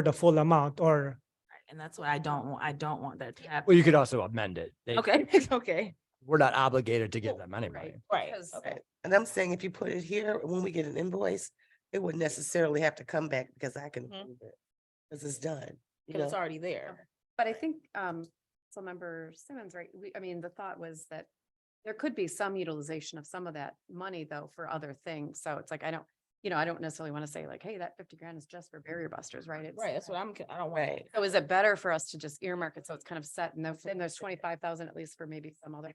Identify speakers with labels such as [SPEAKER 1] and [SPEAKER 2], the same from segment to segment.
[SPEAKER 1] for the full amount or,
[SPEAKER 2] And that's why I don't, wa- I don't want that to happen.
[SPEAKER 3] Well, you could also amend it. They-
[SPEAKER 2] Okay, okay.
[SPEAKER 3] We're not obligated to give
[SPEAKER 4] Well,
[SPEAKER 3] them any money.
[SPEAKER 2] Right.
[SPEAKER 4] Because-
[SPEAKER 2] okay.
[SPEAKER 4] Okay, and I'm saying if you put it here, when we get an invoice, it wouldn't necessarily have to come back because I can
[SPEAKER 2] Mhm.
[SPEAKER 4] prove it. Cause it's done, you
[SPEAKER 2] Because it's
[SPEAKER 4] know,
[SPEAKER 2] already there.
[SPEAKER 5] But I think, um, so member Simmons, right, we, I mean, the thought was that there could be some utilization of some of that money though for other things. So it's like, I don't, you know, I don't necessarily want to say like, hey, that fifty grand is just for barrier busters, right? It's-
[SPEAKER 2] Right, that's what I'm, c- I don't want.
[SPEAKER 4] right?
[SPEAKER 5] So is it better for us to just earmark it? So it's kind of set and then then there's twenty-five thousand at least for maybe some other.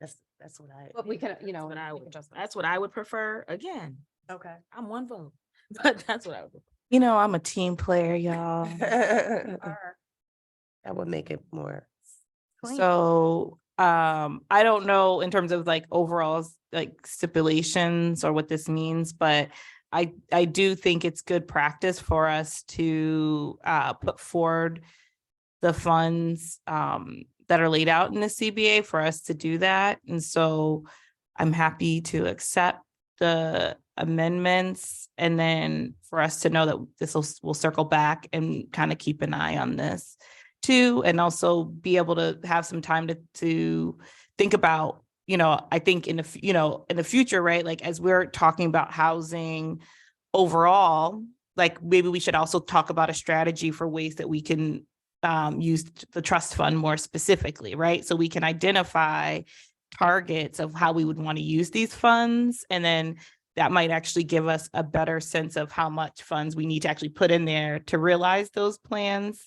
[SPEAKER 4] That's, that's what I.
[SPEAKER 5] But we can,
[SPEAKER 2] That's
[SPEAKER 5] you know.
[SPEAKER 2] what I
[SPEAKER 5] make
[SPEAKER 2] would-
[SPEAKER 5] adjustments.
[SPEAKER 2] That's what I would prefer. Again,
[SPEAKER 5] Okay.
[SPEAKER 2] I'm one vote, but that's what I would.
[SPEAKER 6] You know, I'm a team player, y'all.
[SPEAKER 4] Um, That would make it more.
[SPEAKER 6] So um, I don't know in terms of like overall s- like stipulations or what this means, but I I do think it's good practice for us to uh put forward the funds um that are laid out in the CBA for us to do that. And so I'm happy to accept the amendments and then for us to know that this will will circle back and kind of keep an eye on this too, and also be able to have some time to to think about, you know, I think in the, f- you know, in the future, right? Like as we're talking about housing overall, like maybe we should also talk about a strategy for ways that we can um use t- the trust fund more specifically, right? So we can identify targets of how we would want to use these funds and then that might actually give us a better sense of how much funds we need to actually put in there to realize those plans.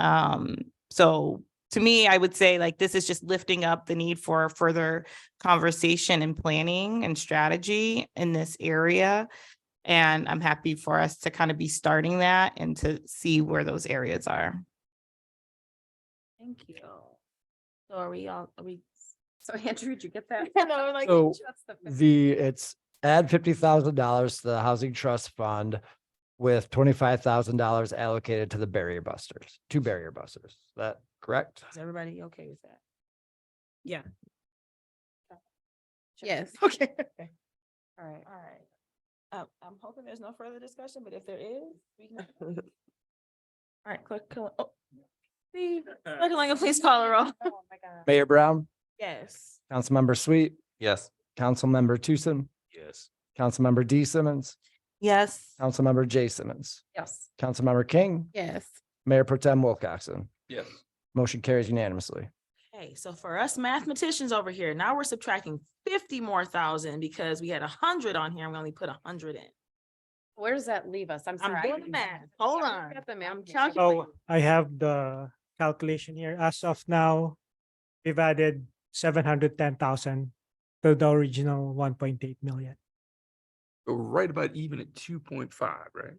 [SPEAKER 6] Um, so to me, I would say like this is just lifting up the need for further conversation and planning and strategy in this area. And I'm happy for us to kind of be starting that and to see where those areas are.
[SPEAKER 2] Thank you. So are we all, are we?
[SPEAKER 5] So Andrew, did you get that?
[SPEAKER 2] And I'm like,
[SPEAKER 3] So
[SPEAKER 5] That's the fifty.
[SPEAKER 3] the, it's add fifty thousand dollars to the housing trust fund with twenty-five thousand dollars allocated to the barrier busters, two barrier busters. Is that correct?
[SPEAKER 2] is everybody okay with that?
[SPEAKER 5] Check.
[SPEAKER 2] Okay.
[SPEAKER 5] All right.
[SPEAKER 2] All right. Uh, I'm hoping there's no further discussion, but if there is, we can. All right, clerk, Kill- oh. Steve, Clerk Kalanga, please call a roll.
[SPEAKER 5] Oh, my God.
[SPEAKER 3] Mayor Brown,
[SPEAKER 2] Yes.
[SPEAKER 3] Councilmember Sweet,
[SPEAKER 7] Yes.
[SPEAKER 3] Councilmember Tucson,
[SPEAKER 7] Yes.
[SPEAKER 3] Councilmember D Simmons,
[SPEAKER 6] Yes.
[SPEAKER 3] Councilmember J Simmons,
[SPEAKER 5] Yes.
[SPEAKER 3] Councilmember King,
[SPEAKER 6] Yes.
[SPEAKER 3] Mayor Pro Tem Wilcoxen.
[SPEAKER 7] Yes.
[SPEAKER 3] Motion carries unanimously.
[SPEAKER 2] Okay, so for us mathematicians over here, now we're subtracting fifty more thousand because we had a hundred on here and we only put a hundred in.
[SPEAKER 5] Where does that leave us? I'm sorry.
[SPEAKER 2] I'm
[SPEAKER 5] I
[SPEAKER 2] doing the
[SPEAKER 5] didn't-
[SPEAKER 2] math. Hold
[SPEAKER 5] Yeah,
[SPEAKER 2] on.
[SPEAKER 5] I've got the math.
[SPEAKER 2] I'm
[SPEAKER 5] Yeah.
[SPEAKER 2] calculating.
[SPEAKER 1] oh, I have the calculation here. As of now, we've added seven hundred ten thousand to the original one point eight million.
[SPEAKER 7] We're Right about even at two point five, right?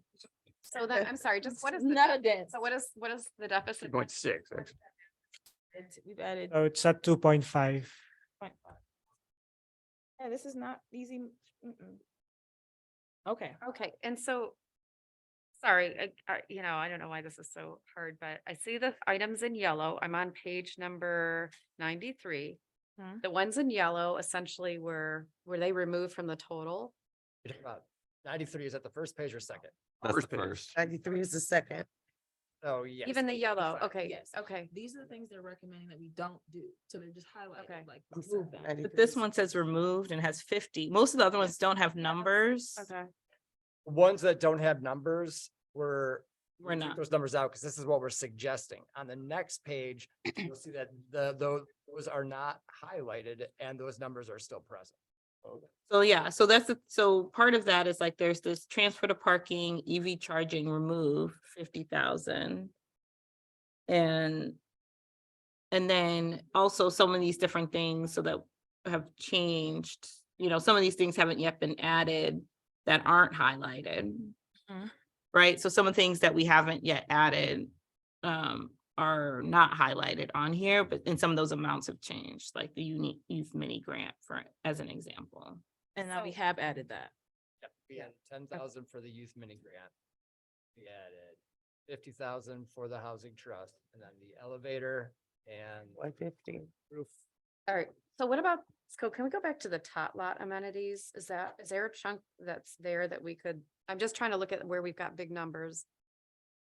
[SPEAKER 5] So that, I'm sorry, just what is? the
[SPEAKER 2] Not a
[SPEAKER 5] def-
[SPEAKER 2] dance.
[SPEAKER 5] So what is, what is the
[SPEAKER 7] Two
[SPEAKER 5] deficit?
[SPEAKER 7] point six,
[SPEAKER 5] What-
[SPEAKER 7] actually.
[SPEAKER 2] It's- We've added.
[SPEAKER 1] So it's at two point five.
[SPEAKER 2] 0.5. Yeah, this is not easy. m- mm-mm. Okay,
[SPEAKER 5] Okay, and so, sorry, I- I, you know, I don't know why this is so hard, but I see the items in yellow. I'm on page number ninety-three.
[SPEAKER 2] Mhm.
[SPEAKER 5] The ones in yellow essentially were, were they removed from the total?
[SPEAKER 3] Ninety-three, is that the first page or second?
[SPEAKER 7] That's
[SPEAKER 3] First
[SPEAKER 7] the
[SPEAKER 3] page.
[SPEAKER 7] first.
[SPEAKER 4] Ninety-three is the second.
[SPEAKER 3] Oh, yes.
[SPEAKER 5] Even the yellow, okay,
[SPEAKER 2] Yes.
[SPEAKER 5] okay.
[SPEAKER 2] these are the things they're recommending that we don't do. So they're just
[SPEAKER 5] Okay.
[SPEAKER 2] highlighted, like.
[SPEAKER 4] I'm
[SPEAKER 2] remove
[SPEAKER 4] sorry,
[SPEAKER 2] them.
[SPEAKER 4] 93
[SPEAKER 6] But this
[SPEAKER 4] is-
[SPEAKER 6] one says removed and has fifty. Most of the other ones don't have numbers.
[SPEAKER 5] Okay.
[SPEAKER 3] Ones that don't have numbers were we
[SPEAKER 6] We're
[SPEAKER 3] took
[SPEAKER 6] not.
[SPEAKER 3] Those numbers out, because this is what we're suggesting. On the next page, you'll see that the, those, those are not highlighted and those numbers are still present.
[SPEAKER 6] So yeah, so that's, the- so part of that is like, there's this transfer to parking, EV charging, remove fifty thousand. And. And then also some of these different things so that have changed, you know, some of these things haven't yet been added that aren't highlighted.
[SPEAKER 2] Mhm.
[SPEAKER 6] Right, so some of the things that we haven't yet added um are not highlighted on here, but and some of those amounts have changed, like the unique youth mini grant for, as an example.
[SPEAKER 2] And now we
[SPEAKER 5] So-
[SPEAKER 2] have added that.
[SPEAKER 3] Yeah, ten thousand for the youth mini grant. We added fifty thousand for the housing trust and then the elevator and
[SPEAKER 4] One fifty.
[SPEAKER 3] roof.
[SPEAKER 5] All right, so what about, so can we go back to the tot lot amenities? Is that, is there a chunk that's there that we could? I'm just trying to look at where we've got big numbers.